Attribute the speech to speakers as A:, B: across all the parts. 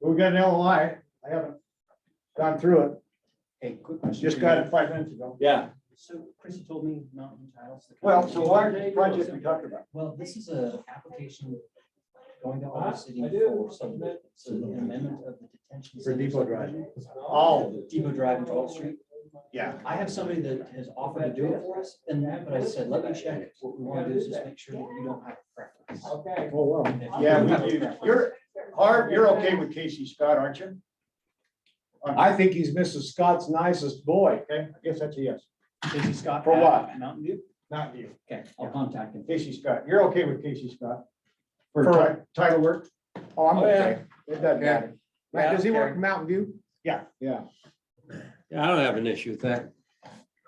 A: We got an LOI. I haven't gone through it.
B: Hey, quick question.
A: Just got it five minutes ago.
C: Yeah,
B: So Chrissy told me Mountain Tiles. the
A: Well,
B: company-
A: so what project we talked about?
B: Well, this is a application going to
C: Huh?
B: our city
C: I do.
B: for some, it's an amendment of the detention.
A: For
B: center
A: Depot Drive.
B: subdivision.
A: Oh.
B: Depot Drive and Twelfth Street.
A: Yeah.
B: I have somebody that has offered to do it for us, and, but I said, let me check. What we want to do is just make sure that you don't have a preference.
C: Okay.
A: Oh, well.
B: If you
A: Yeah,
B: have a
A: we do.
B: preference-
A: You're, Harv, you're okay with Casey Scott, aren't you?
D: I think he's Mrs. Scott's nicest boy.
A: Okay, I guess that's a yes.
B: Casey Scott.
D: For
B: at
D: what?
B: Mountain View.
A: Not you.
B: Okay, I'll contact him.
A: Casey Scott. You're okay with Casey Scott? For
D: For-
A: ti- title work?
D: Oh, I'm
C: Oh, yeah.
D: okay.
A: It doesn't matter.
D: Matt, Does he work in Mountain View?
A: Yeah.
E: Yeah, I don't have an issue with that.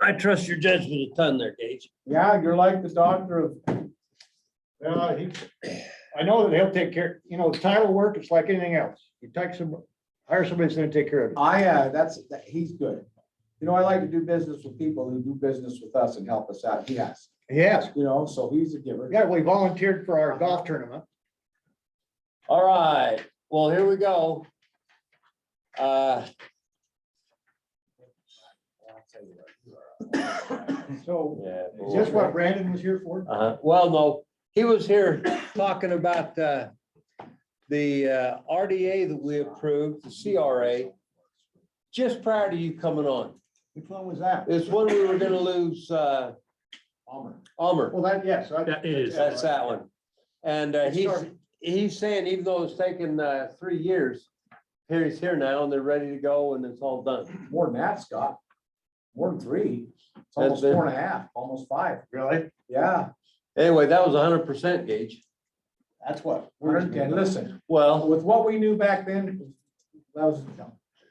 E: I trust your judgment a ton there, Gage.
A: Yeah, you're like the doctor of. Well, he, I know that he'll take care, you know, title work, it's like anything else. You take some, hire somebody that's gonna take care of it.
F: I, uh, that's, that- he's good. You know, I like to do business with people who do business with us and help us out. He has,
A: Yes,
F: you know, so he's a giver.
A: yeah, we volunteered for our golf tournament.
E: All right, well, here we go. Uh,
A: So
E: yeah,
A: is this what Brandon was here for?
E: uh, well, no, he was here talking about, uh, the uh, RDA that we approved, the CRA, just prior to you coming on.
A: Which one was that?
E: It's when we were gonna lose, uh,
F: Palmer.
E: Almer.
A: Well, that, yes. I-
C: That is.
E: That's that one. And uh, he's, he's saying even though it's taken uh, three years, here he's here now and they're ready to go and it's all done.
F: More than that, Scott. More than three. It's almost
E: That's it.
F: four and a half, almost five.
A: Really?
F: Yeah,
E: Anyway, that was hundred percent gauge.
F: that's what. We're, and listen,
E: Well,
F: with what we knew back then, that was,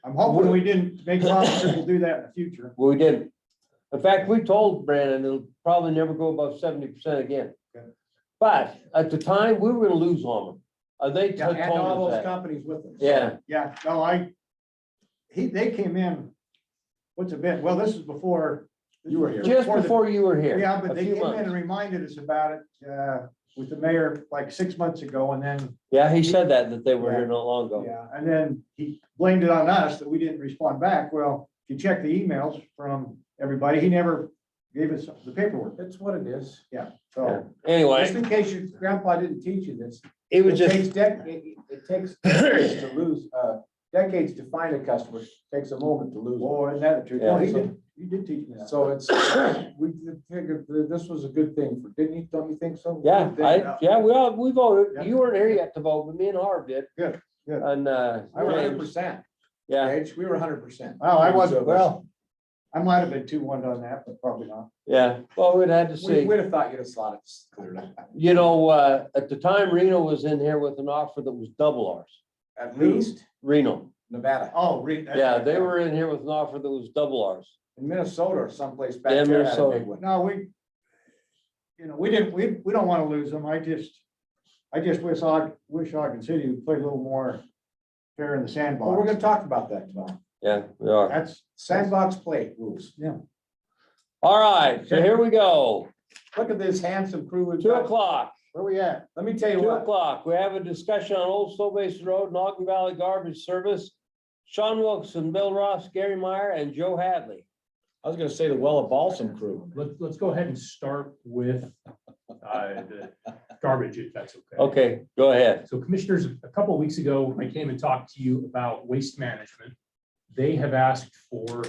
A: I'm hoping we didn't make promises we'll do that in the future.
E: we didn't. In fact, we told Brandon it'll probably never go above seventy percent again.
A: Okay.
E: But at the time, we were gonna lose on them. Uh, They
F: and
E: told
F: all
E: us that.
F: those companies with us.
E: Yeah,
A: Yeah, no, I, he, they came in, what's it been? Well, this is before.
F: You were here.
E: just
A: the-
E: before you were here.
A: Yeah, but
E: a
A: they
E: few
A: came in and
E: months.
A: reminded us about it uh, with the mayor like six months ago and then,
E: Yeah, he said that, that they were here not long ago.
A: yeah, and then he blamed it on us that we didn't respond back. Well, if you check the emails from everybody, he never gave us the paperwork,
F: It's what it is.
E: Yeah.
A: so.
F: Just
E: Anyway,
F: in case your grandpa didn't teach you this,
E: it was
F: It
E: just.
F: takes dec- it- it takes decades to lose, uh, decades to find a customer, takes a moment to lose.
A: Boy, isn't that the truth?
E: Yeah.
A: Well, he did, you did teach me
F: them.
A: that.
F: So it's, we figured that this was a good thing for, didn't you, don't you think so?
E: Yeah, I,
A: Yeah.
E: yeah, we all, we
A: Yeah.
E: voted. You weren't here yet to vote, but me and Harv did.
A: Good, good.
E: And, uh,
F: We were hundred
E: James,
F: percent,
E: yeah,
F: we were hundred percent.
A: Well, I wasn't, well, I might have been two one on that, but probably not.
E: yeah. Well, we'd had to
F: We,
E: see.
F: we'd have thought you'd have slotted us cleared up.
E: You know, uh, at the time Reno was in here with an offer that was double ours,
F: at least
E: Reno.
F: Nevada,
A: Oh, re- that's
E: Yeah,
A: right.
E: they were in here with an offer that was double ours.
F: uh, in Minnesota or someplace back
E: Yeah,
F: there. had a
E: Minnesota.
F: big one.
A: No, we, you know, we didn't, we, we don't want to lose them. I just, I just wish Og, wish Ogden City would play a little more fair in the
F: Well, we're
A: sandbox.
F: gonna talk about that tomorrow,
E: Yeah, we are.
A: That's,
F: sandbox plate rules,
E: All right, so here we go.
F: look at this handsome crew we've
E: Two
F: got,
E: o'clock,
A: where we at?
F: let me tell you
E: two
F: what.
E: o'clock. We have a discussion on Old Snow Basin Road and Ogden Valley Garbage Service. Sean Wilson, Bill Ross, Gary Meyer and Joe Hadley.
F: I was gonna say the Well of Balsam crew.
C: Let's, let's go ahead and start with uh, the garbage, if that's okay.
E: Okay, go ahead.
C: So commissioners, a couple of weeks ago, I came and talked to you about waste management. They have asked for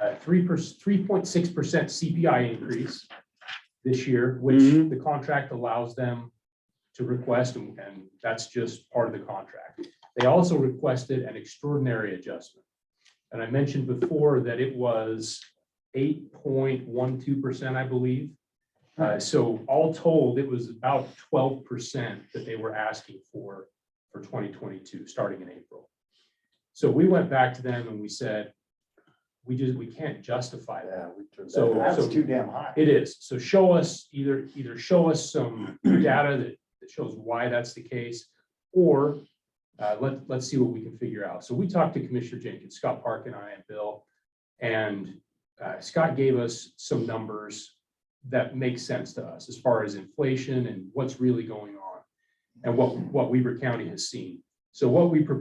C: a three percent, three point six percent CPI increase this year, which
E: Mhm.
C: the contract allows them to request, and and that's just part of the contract. They also requested an extraordinary adjustment. And I mentioned before that it was eight point one two percent, I believe. Uh, so all told, it was about twelve percent that they were asking for, for twenty twenty-two, starting in April. So we went back to them and we said, we just, we can't justify that. So,
A: That's
C: so
A: too damn high.
C: it is. So show us either, either show us some data that, that shows why that's the case. Or uh, let, let's see what we can figure out. So we talked to Commissioner Jenkins, Scott Park and I and Bill. And uh, Scott gave us some numbers that make sense to us as far as inflation and what's really going on. And what, what Weaver County has seen. So what we proposed